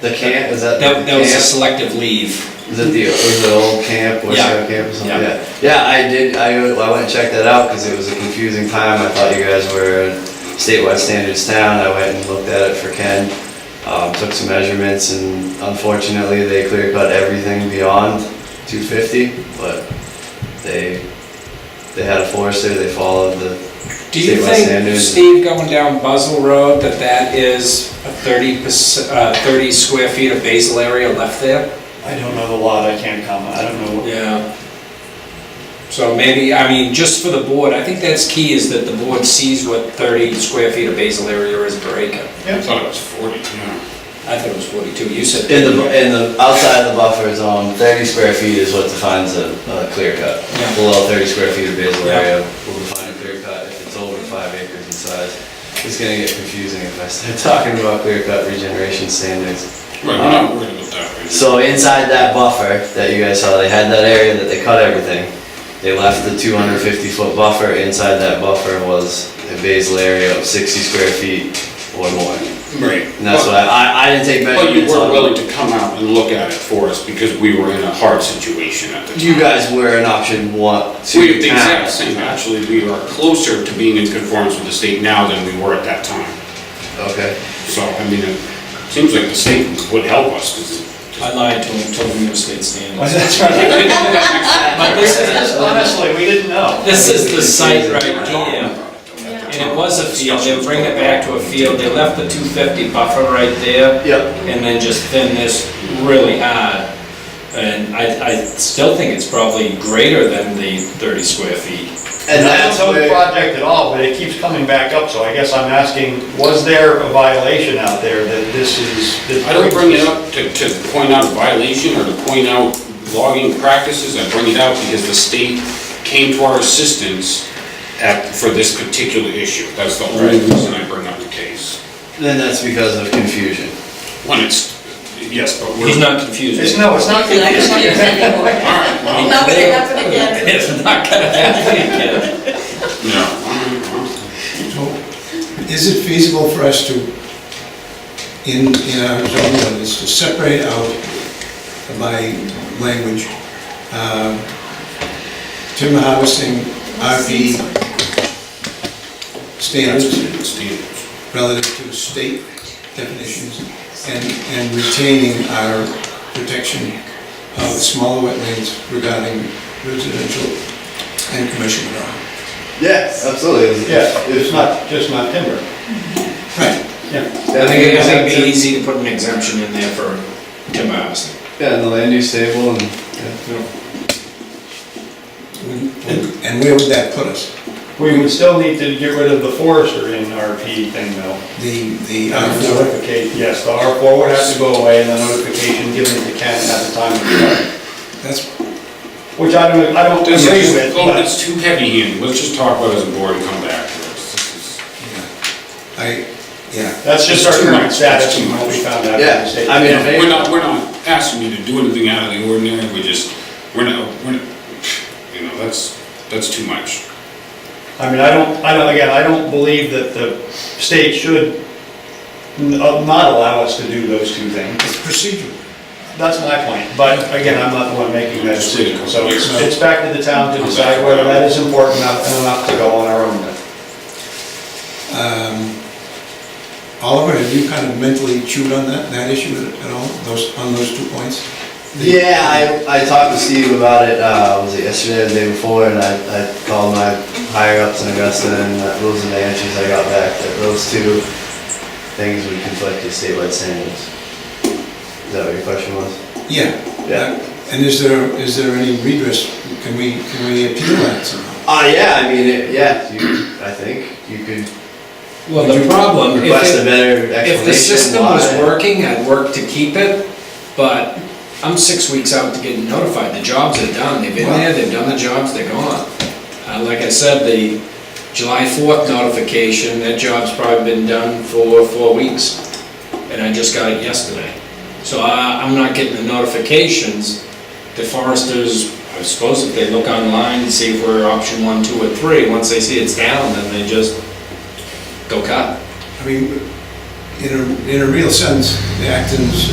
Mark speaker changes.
Speaker 1: The camp, is that the
Speaker 2: That, that was a
Speaker 1: camp?
Speaker 2: selective leave.
Speaker 1: Is it the, was the old camp, West
Speaker 2: Yeah.
Speaker 1: Shore Camp or something?
Speaker 2: Yeah.
Speaker 1: Yeah, I did, I, I went and checked that out because it was a confusing time. I thought you guys were in statewide standards town. I went and looked at it for Ken. Um, took some measurements and unfortunately they clear cut everything beyond two fifty, but they, they had a forester, they followed the
Speaker 2: Do you
Speaker 1: statewide
Speaker 2: think,
Speaker 1: standards.
Speaker 2: Steve, going down Buzzell Road, that that is a 30, uh, 30 square feet of basal area left there?
Speaker 3: I don't know the lot, I can't comment, I don't know what
Speaker 2: Yeah. So maybe, I mean, just for the board, I think that's key, is that the board sees what 30 square feet of basal area is per acre.
Speaker 4: I thought it was 40, yeah.
Speaker 2: I thought it was 42, you said.
Speaker 1: In the, in the, outside the buffer zone, thirty square feet is what defines a, a clear cut.
Speaker 2: Yeah.
Speaker 1: Below thirty square feet of basal
Speaker 2: Yeah.
Speaker 1: area will define a clear cut if it's over five acres in size. It's gonna get confusing if I start talking about clear cut regeneration standards.
Speaker 4: Right, we're not worried about that right now.
Speaker 1: So inside that buffer that you guys saw, they had that area that they cut everything. They left the two hundred fifty foot buffer, inside that buffer was a basal area of sixty square feet or more.
Speaker 4: Right.
Speaker 1: And that's what I, I, I didn't take
Speaker 4: But- But you
Speaker 1: measurements on.
Speaker 4: were willing to come out and look at it for us because we were in a hard situation at the time.
Speaker 1: You guys were an option one, two.
Speaker 4: We have the
Speaker 1: town.
Speaker 4: exact same, actually, we are closer to being in conformance with the state now than we were at that time.
Speaker 1: Okay.
Speaker 4: So, I mean, it seems like the state would help us because.
Speaker 2: I lied to him, told him it was state standards.
Speaker 3: That's right.
Speaker 2: But this is,
Speaker 3: Honestly, we didn't know.
Speaker 2: this is the site right here. And it was a field, they bring it back to a field, they left the 250 buffer right there,
Speaker 1: Yep.
Speaker 2: and then just thin this really hard. And I, I still think it's probably greater than the 30 square feet.
Speaker 1: And
Speaker 3: I don't
Speaker 1: that's
Speaker 3: know the
Speaker 1: where,
Speaker 3: project at all, but it keeps coming back up, so I guess I'm asking, was there a violation out there that this is? that-
Speaker 4: I don't bring it up to, to point out violation or to point out logging practices, I bring it out because the state came to our assistance at, for this particular issue, that's the only reason I bring up the case.
Speaker 1: then that's because of confusion.
Speaker 4: When it's, yes, but we're.
Speaker 2: He's not confused.
Speaker 3: It's, no, it's not.
Speaker 5: Like, it's not
Speaker 4: All
Speaker 5: anymore.
Speaker 4: right, well,
Speaker 5: Not gonna happen again.
Speaker 2: It's not gonna happen again.
Speaker 4: no. all right,
Speaker 6: So, Is it feasible for us to, in, in our zoning ordinance, to separate out by language, um, timber harvesting, RV
Speaker 4: well, That's
Speaker 6: standards
Speaker 4: the standards.
Speaker 6: relative to state definitions, and, and retaining our protection of smaller wetlands regarding residential and commercial development?
Speaker 1: Yes, absolutely.
Speaker 3: Yeah, it's not, just not timber.
Speaker 6: Right.
Speaker 1: I
Speaker 2: I
Speaker 1: think it
Speaker 2: think
Speaker 1: goes
Speaker 2: it'd
Speaker 1: back
Speaker 2: be
Speaker 1: to,
Speaker 2: easy to put an exemption in there for timber harvesting.
Speaker 1: yeah, in the land use table and, yeah.
Speaker 6: And where would that put us?
Speaker 3: We would still need to get rid of the forester in RP thing though.
Speaker 6: The, the,
Speaker 4: Uh-huh.
Speaker 3: And
Speaker 6: uh,
Speaker 3: notification, yes, the R4 would have to go away and the notification given to Ken at the time of the,
Speaker 6: um, that's,
Speaker 3: which I don't, I don't
Speaker 4: This
Speaker 3: agree
Speaker 4: is,
Speaker 3: with,
Speaker 4: oh,
Speaker 3: but.
Speaker 4: it's too heavy handed, let's just talk about it as a board and come back to this. This is-
Speaker 6: I, yeah,
Speaker 3: That's just our
Speaker 4: It's too
Speaker 3: current
Speaker 4: much.
Speaker 3: status
Speaker 4: It's too
Speaker 3: and what we
Speaker 4: much.
Speaker 3: found out. in the
Speaker 1: Yeah,
Speaker 3: state.
Speaker 1: I mean, if
Speaker 4: We're
Speaker 1: they-
Speaker 4: not, we're not asking you to do anything out of the ordinary, we're just, we're not, we're, not- you know, that's, that's too much.
Speaker 3: I mean, I don't, I don't, again, I don't believe that the state should n- uh, not allow us to do those two things.
Speaker 6: it's procedural.
Speaker 3: That's my point, but again, I'm not the one making that decision. So it's, it's back to the town to decide whether that is important enough and enough to go on our own. then.
Speaker 6: Um, Oliver, have you kind of mentally chewed on that, that issue at all, those, on those two points? The-
Speaker 1: Yeah, I, I talked to Steve about it, uh, was it yesterday or the day before, and I, I called my higher ups in Augusta, and that- those are the answers I got back, that those two things would conflict with statewide standards. Is that what your question was?
Speaker 6: Yeah. Uh,
Speaker 1: Yeah.
Speaker 6: And is there, is there any redress, can we, can we appeal that somehow?
Speaker 1: Uh, yeah, I mean, it- yeah, you, I think you could
Speaker 2: Well, the problem, if
Speaker 1: request a
Speaker 2: it,
Speaker 1: better explanation.
Speaker 2: if the system was
Speaker 1: why.
Speaker 2: working, I'd work to keep it, but I'm six weeks out to getting notified, the jobs are done, they've been there, they've done the jobs, they're gone. Uh, like I said, the July fourth notification, that job's probably been done for four weeks, and I just got it yesterday. So I, I'm not getting the notifications, the foresters, I suppose if they look online and see if we're option one, two, or three, once they see it's down, then they just go cut.
Speaker 6: I mean, in a, in a real sense, the Acton's